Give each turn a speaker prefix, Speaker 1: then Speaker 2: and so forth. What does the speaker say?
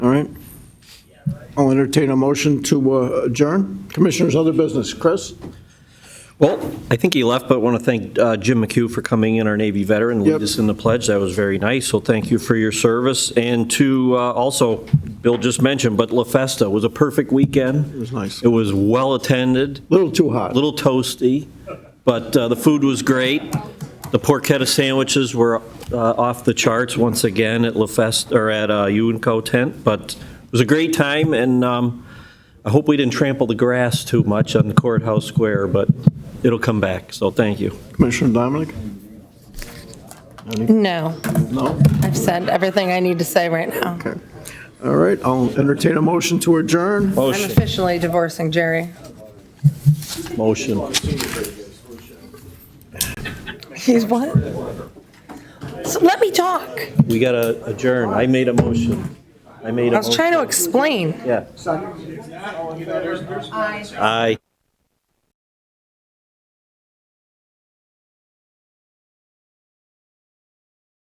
Speaker 1: All right. I'll entertain a motion to uh, adjourn. Commissioners, other business. Chris?
Speaker 2: Well, I think he left, but want to thank uh, Jim McHugh for coming in, our Navy veteran,
Speaker 1: Yep.
Speaker 2: lead us in the pledge. That was very nice, so thank you for your service. And to uh, also, Bill just mentioned, but La Festa was a perfect weekend. It
Speaker 1: was nice.
Speaker 2: It was well-attended,
Speaker 1: Little too hot.
Speaker 2: a little toasty, but uh, the food was great. The porchetta sandwiches were uh, off the charts once again at La Festa, or at uh, UNCO tent, but it was a great time, and um, I hope we didn't trample the grass too much on the courthouse square, but it'll come back, so thank you.
Speaker 1: Commissioner Dominic?
Speaker 3: No,
Speaker 1: No?
Speaker 3: I've said everything I need to say right now.
Speaker 1: Okay. All right, I'll entertain a motion to adjourn.
Speaker 3: I'm
Speaker 2: Motion,
Speaker 3: officially divorcing Jerry.
Speaker 2: motion.
Speaker 3: He's what? So Let me talk.
Speaker 2: We got to adjourn. I made a motion. I made a
Speaker 3: I
Speaker 2: motion.
Speaker 3: was trying to explain.
Speaker 2: Yeah. Aye.